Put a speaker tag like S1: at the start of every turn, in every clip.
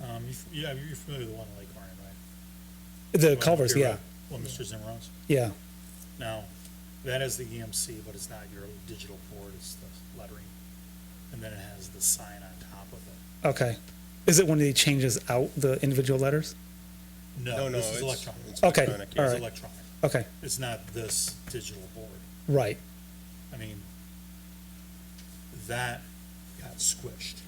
S1: Um, you, f- yeah, you're familiar with the one in Lake Arnon, right?
S2: The culverts,
S1: You're
S2: yeah,
S1: right. Well, Mr. Zimmerman's.
S2: yeah.
S1: Now, that is the EMC, but it's not your digital board, it's the lettering. And then it has the sign on top of it.
S2: Okay. Is it when he changes out the individual letters?
S1: No,
S3: No, no,
S1: this
S3: it's.
S1: is electronic.
S3: it's
S1: It's
S2: Okay,
S3: electronic,
S2: Oh, all
S3: yes.
S2: right.
S1: electronic.
S2: Okay,
S1: It's not this digital board.
S2: right.
S1: I mean, that got squished,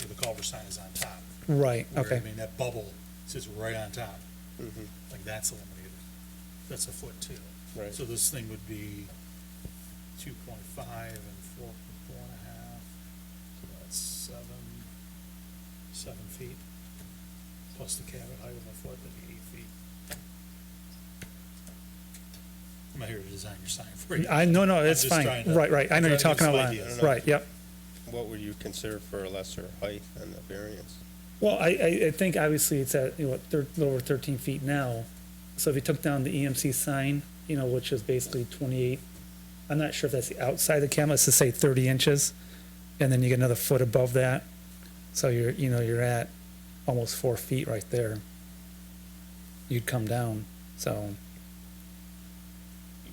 S1: where the culvert sign is on top.
S2: Right,
S1: where,
S2: okay,
S1: I mean, that bubble sits right on top.
S3: Mm-hmm.
S1: Like, that's eliminated. That's a foot two.
S3: Right.
S1: So this thing would be two point five and four, four and a half, so that's seven, seven feet. Plus the cabin height of a foot, that'd be eight feet. I'm not here to design your sign for you.
S2: I, no, no, it's
S1: just
S2: fine,
S1: trying to-
S2: right, right, I know
S1: I'm
S2: you're
S1: trying to
S2: talking
S1: give
S2: about,
S1: some ideas.
S2: right, yep.
S3: What would you consider for a lesser height than the variance?
S2: Well, I, I, I think obviously it's at, you know, what, thir- a little over thirteen feet now. So if you took down the EMC sign, you know, which is basically twenty-eight, I'm not sure if that's the outside of the camera, let's just say thirty inches. And then you get another foot above that. So you're, you know, you're at almost four feet right there. You'd come down, so,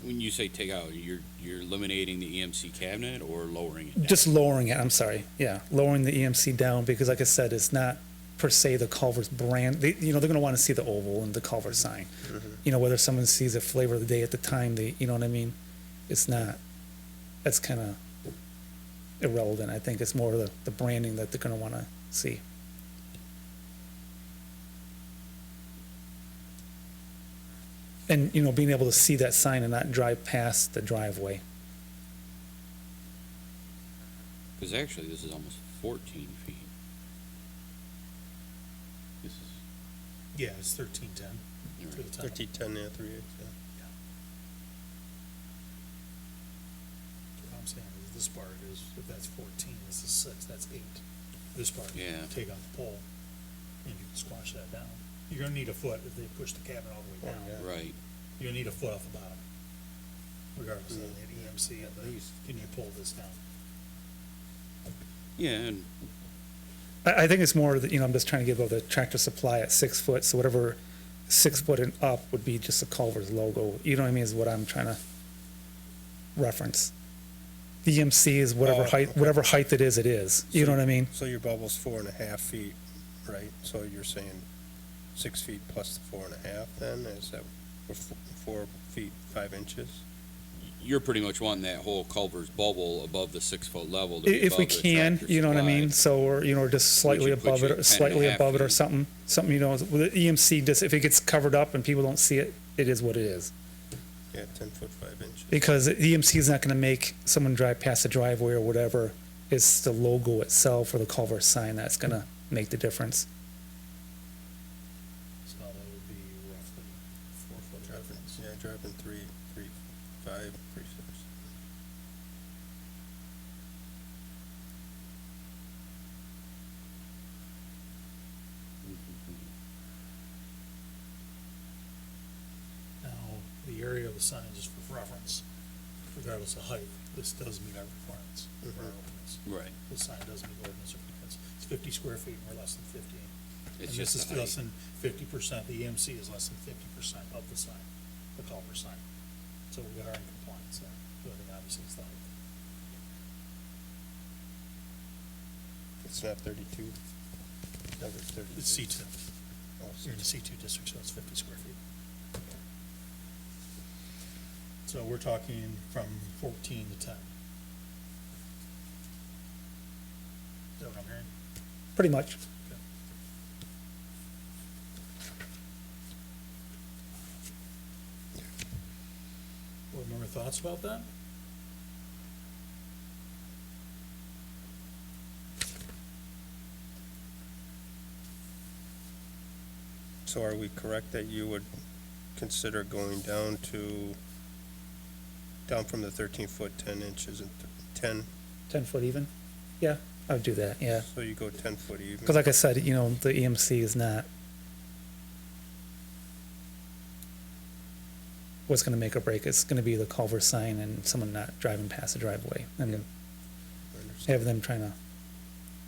S4: When you say take out, you're, you're eliminating the EMC cabinet or lowering it? down?
S2: just lowering it, I'm sorry, yeah, lowering the EMC down, because like I said, it's not per se the Culver's brand, they, you know, they're gonna wanna see the oval and the Culver sign. You know, whether someone sees the flavor of the day at the time, they, you know what I mean? It's not, that's kinda irrelevant, I think it's more the, the branding that they're gonna wanna see. And, you know, being able to see that sign and not drive past the driveway.
S4: Because actually, this is almost fourteen feet. This is,
S1: Yeah, it's thirteen ten
S4: you're
S1: to
S4: right.
S1: the top.
S3: Thirteen, ten, yeah, three eighths, yeah.
S1: What I'm saying is this part is, if that's fourteen, this is six, that's eight. This part, you
S4: Yeah.
S1: take out the pole and you can squash that down. You're gonna need a foot if they push the cabin all the way down.
S3: Yeah.
S4: right,
S1: You're gonna need a foot off the bottom. Regardless of the E EMC, at least, can you pull this down?
S4: yeah, and
S2: I, I think it's more that, you know, I'm just trying to give over the tractor supply at six foot, so whatever six foot and up would be just a Culver's logo. You know what I mean, is what I'm trying to reference. The EMC is whatever
S3: Oh,
S2: height,
S3: okay.
S2: whatever height it is, it is. You know what I mean?
S3: So your bubble's four and a half feet, right? So you're saying six feet plus the four and a half then, is that, or f- four feet, five inches?
S4: you're pretty much wanting that whole Culver's bubble above the six-foot level to
S2: I-
S4: be
S2: If we
S4: above the
S2: can,
S4: tractor
S2: you know what I
S4: supply.
S2: mean, so, or, you know, or just slightly
S4: Which would put
S2: above it,
S4: you
S2: or
S4: 10
S2: slightly
S4: and a half
S2: above it or
S4: feet.
S2: something, something, you know, with the EMC, just if it gets covered up and people don't see it, it is what it is.
S3: Yeah, ten foot, five inches.
S2: because EMC is not going to make someone drive past the driveway or whatever. It's the logo itself or the culvert sign that's going to make the difference.
S1: So that would be roughly four foot
S3: Dropping,
S1: difference.
S3: yeah, dropping three, three, five, three, six.
S1: Now, the area of the sign is for reference, regardless of height, this does meet our requirements. for our
S3: Mhm.
S1: ordinance.
S4: Right,
S1: The sign does meet ordinance requirements. It's fifty square feet and we're less than fifty. And
S4: it's
S1: this
S4: just
S1: is
S4: the height.
S1: less than fifty percent, the EMC is less than fifty percent of the sign, the culvert sign. So we are in compliance there, but I think obviously it's not.
S3: It's not thirty-two? Number thirty-two.
S1: It's C two,
S3: Oh,
S1: you're in the
S3: six.
S1: C two district, so it's fifty square feet. So we're talking from fourteen to ten. Is that what I'm hearing?
S2: Pretty much.
S1: Board member thoughts about that?
S3: So are we correct that you would consider going down to, down from the thirteen foot, ten inches and th- ten,
S2: 10 foot even. Yeah, I would do that. Yeah.
S3: so you go ten foot even?
S2: Because, like I said, you know, the EMC is not what's going to make or break. It's going to be the culvert sign and someone not driving past the driveway and
S3: I understand.
S2: have them trying to